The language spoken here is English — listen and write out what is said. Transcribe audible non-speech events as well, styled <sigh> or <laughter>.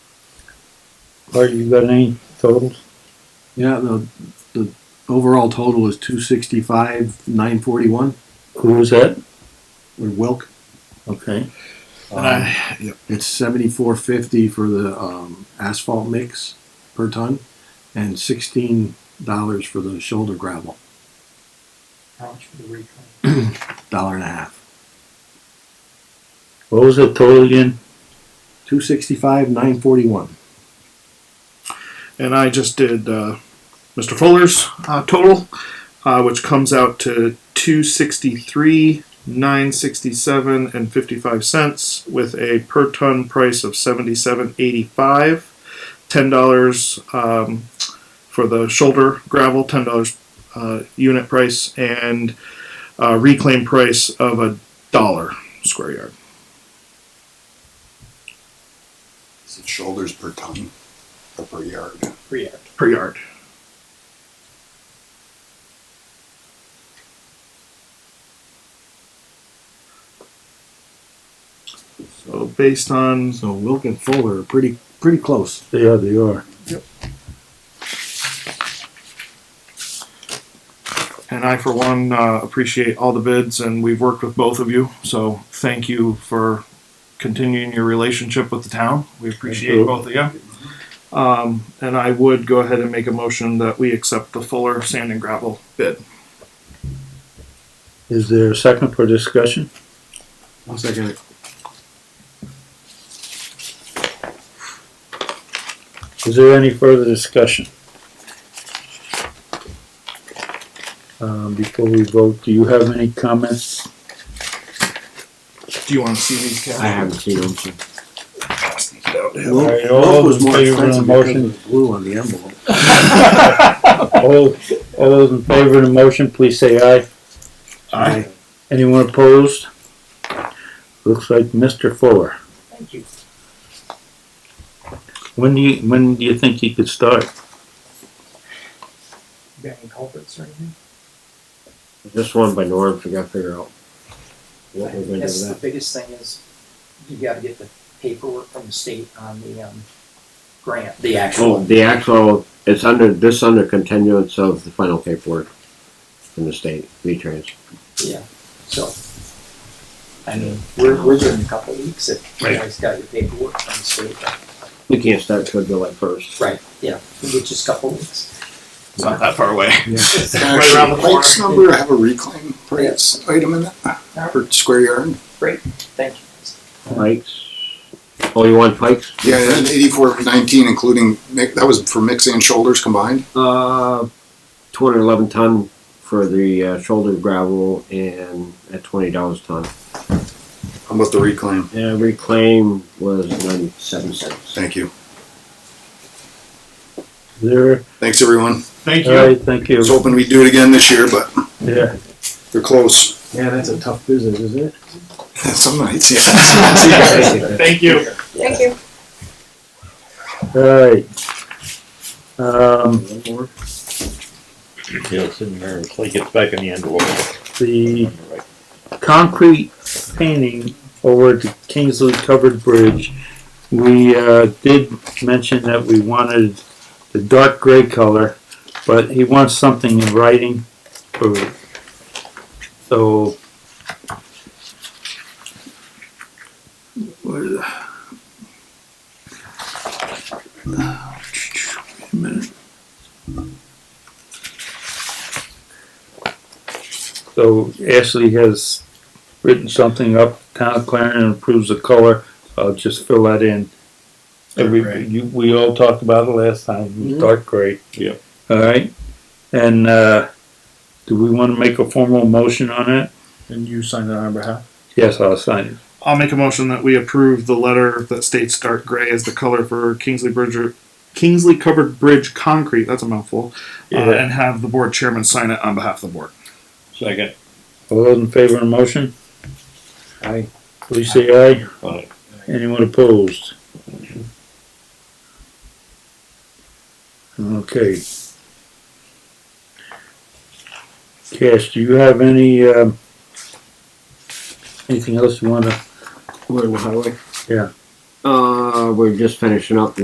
Art, you got any totals? Yeah, the, the overall total is two sixty-five, nine forty-one, Who was that? or Wilk. Okay. And I, yep, it's seventy-four fifty for the, um, asphalt mix per ton and sixteen dollars for the shoulder gravel, How much for the recon? dollar and a half. What was the total again? Two sixty-five, nine forty-one. and I just did uh, Mr. Fuller's uh, total, uh, which comes out to two sixty three, nine sixty seven, and fifty five cents, with a per ton price of seventy seven eighty five. Ten dollars um, for the shoulder gravel, ten dollars uh, unit price, and uh, reclaim price of a dollar square yard. Is it shoulders per ton or per yard? Pre-act. per yard. So based on So Wilk and Fuller are pretty, pretty close. Yeah, they are. and I for one uh, appreciate all the bids and we've worked with both of you. So thank you for continuing your relationship with the town. We appreciate you. both of you. Um, and I would go ahead and make a motion that we accept the Fuller sand and gravel bid. Is there a second for discussion? One second. Is there any further discussion? Um, before we vote, do you have any comments? Do you want to see these? Cal? seen them. All right, Wilk all Wilk was those in more favor of the expensive because motion? of the blue on the envelope. All, all those in favor of the motion, please say aye. Aye. Anyone opposed? Looks like Mr. Fuller. Thank you. When do you, when do you think he could start? You got any culprits or anything? Just one by Norms, we gotta figure out what we're I gonna do guess with the that. biggest thing is you gotta get the paperwork from the state on the, um, grant, the Oh, actual. the actual, it's under, this under continuance of the final paperwork from the state, V-Trans. Yeah, so. I mean, we're, we're doing a couple weeks if you guys got your paperwork from the state. We can't start till July first. Right, yeah, which is a couple weeks. It's not that far away. It's Right around the Actually, Mike's number have a reclaim price item in that per square yard. Thank you. Pikes. Oh, you want Pikes? Yeah, and eighty-four nineteen, including mi- that was for mix and shoulders combined. Uh, two hundred eleven ton for the uh, shoulder gravel and at twenty dollars ton. How about the reclaim? And reclaim was ninety-seven cents. Thank you. Is There, Thanks, everyone. Thank you. all right, thank I you. was hoping we'd do it again this year, but Yeah, they're close. Yeah, that's a tough business, isn't it? <laughs> Some nights, <laughs> yeah. Thank you. Thank you. all right. Um, Yeah, it's in there until he gets back in the envelope. the concrete painting over the Kingsley Covered Bridge, we, uh, did mention that we wanted the dark gray color, but he wants something in writing for, so. Where is it? Wait a minute. So Ashley has written something up, town of Clarendon approves the color, I'll just fill that in. Every, gray. you, we all talked about it last time, Mhm. dark gray. Yeah. Alright, and, uh, do we wanna make a formal motion on it? And you signed it on our behalf. Yes, I'll sign it. I'll make a motion that we approve the letter that states dark gray as the color for Kingsley Bridger, Kingsley covered bridge concrete. That's a mouthful. Uh, Yeah. and have the board chairman sign it on behalf of the board. Second. All those in favor of the motion? Aye. Please say aye. Aye. Anyone opposed? Okay. Cash, do you have any, um, anything else you wanna Where was I? Uh, we're just finishing up